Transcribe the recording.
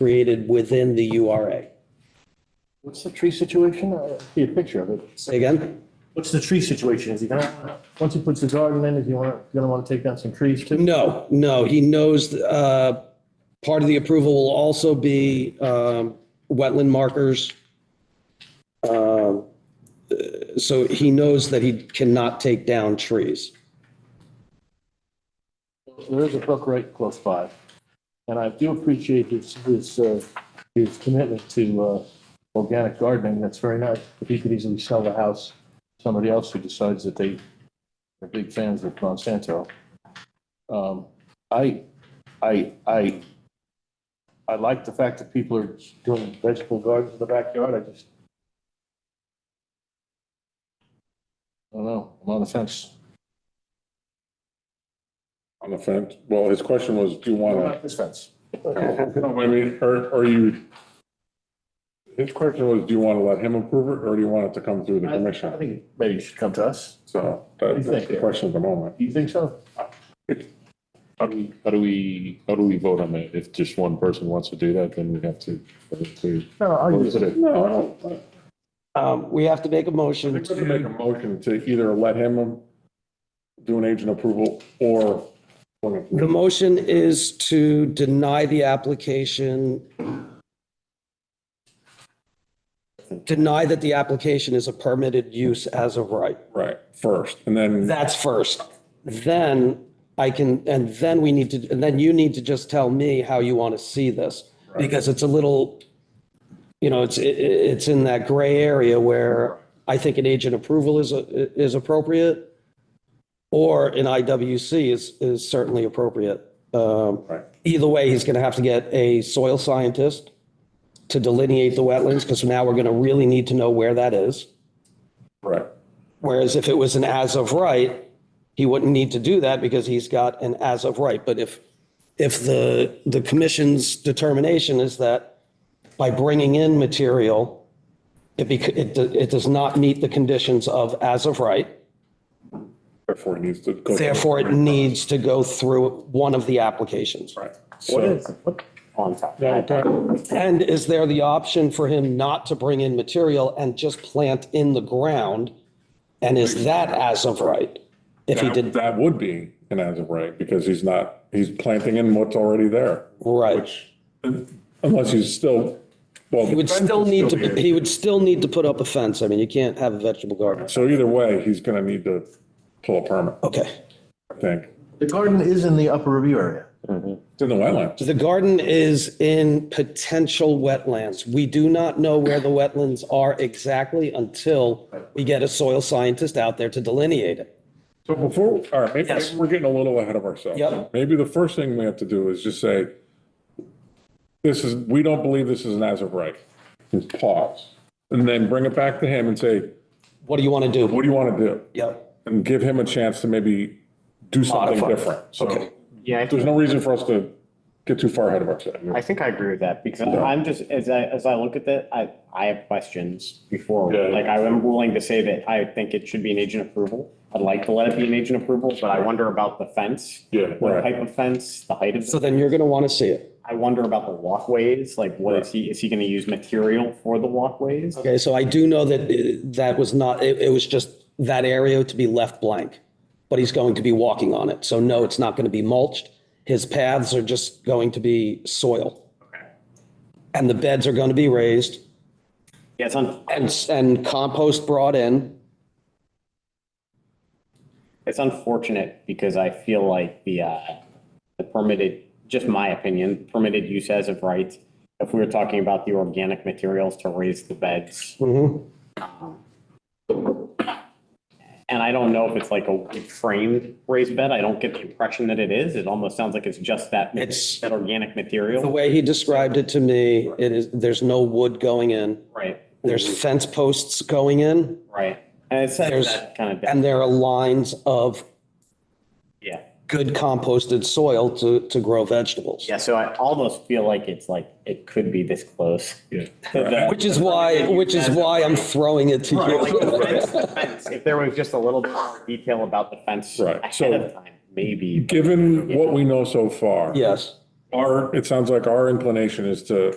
created within the URA. What's the tree situation? I see a picture of it. Say again? What's the tree situation? Is he gonna, once he puts the garden in, is he wanna, gonna wanna take down some trees too? No, no, he knows, uh, part of the approval will also be, um, wetland markers. Um, uh, So he knows that he cannot take down trees. There is a brook right close by. And I do appreciate his, his, uh, his commitment to, uh, organic gardening. That's very nice. But he could easily sell the house to somebody else who decides that they are big fans of Monsanto. Um, I, I, I, I like the fact that people are doing vegetable gardens in the backyard. I just. I don't know. I'm on the fence. On the fence, well, his question was, do you want This fence. to, No, I mean, are, are you? His question was, do you want to let him approve it, or do you want it to come through the I I commission? think maybe you should come to us. So do you that- that's think? the question at the moment. Do you think so? How do we, how do we, how do we vote on that? If just one person wants to do that, then we have to. No, Or I'll is it a- No, I don't, I Um, we have to make a motion think we can make a to, motion to either let him do an agent approval or. the motion is to deny the application. Deny that the application is a permitted use as of right. Right, first, and then, That's first. Then I can, and then we need to, and then you need to just tell me how you want to see this. Because it's a little, you know, it's, i- i- it's in that gray area where I think an agent approval is, a- is appropriate. Or an IWC is, is certainly appropriate. Um, right, Either way, he's going to have to get a soil scientist to delineate the wetlands because now we're going to really need to know where that is. right, Whereas if it was an as of right, he wouldn't need to do that because he's got an as of right. But if, if the, the commission's determination is that by bringing in material, it bec, it, do- it does not meet the conditions of as of right, therefore he needs to. go- therefore it needs to go through one of the applications. Right, What so, is, what, now, that- And is there the option for him not to bring in material and just plant in the ground? And is that as of right? If he that, did, that would be an as of right, because he's not, he's planting in what's already there. right. Which, unless he's still, well. He would still need to, he would still need to put up a fence. I mean, you can't have a vegetable garden. So either way, he's gonna need to pull a permit, Okay. I think. the garden is in the upper review area. It's in the wetlands. The garden is in potential wetlands. We do not know where the wetlands are exactly until we get a soil scientist out there to delineate it. So before, all right, maybe Yes. maybe we're getting a little ahead of ourselves. Yep. Maybe the first thing we have to do is just say, this is, we don't believe this is an as of right. Just pause. And then bring it back to him and say, What do you want to do? what do you want to do? Yep. And give him a chance to maybe do something Modify. different. Okay. So Yeah, I there's think, no reason for us to get too far ahead of ourselves. I think I agree with that because I'm just, as I, as I look at that, I, I have questions before. Yeah. Like I am willing to say that I think it should be an agent approval. I'd like to let it be an agent approval, but I wonder about the fence. Yeah, What right. type of fence, the height of, So the then you're going to want to see it. I wonder about the walkways, like what is he, is he going to use material for the walkways? Okay. So I do know that uh, that was not, it, it was just that area to be left blank, but he's going to be walking on it. So no, it's not going to be mulched. His paths are just going to be soil. And the beds are going to be raised. Yeah, it's un, and, and compost brought in. it's unfortunate because I feel like the, uh, the permitted, just my opinion, permitted use as of right. If we were talking about the organic materials to raise the beds, And I don't know if it's like a framed raised bed. I don't get the impression that it is. It almost sounds like it's just that, ma- It's- that organic The material. way he described it to me, it is, there's no wood going in. Right, There's fence posts going in right. And it says There's- that kind of, and there are lines of yeah. good composted soil to, to grow vegetables. Yeah, so I almost feel like it's like, it could be this close. Yeah. That- Which is why, which is why I'm throwing it to Like the fence- you. the fence, If there was just a little bit more detail about the fence Right, so- ahead of time, maybe. Given what we know so far. Yes. our, it sounds like our inclination is to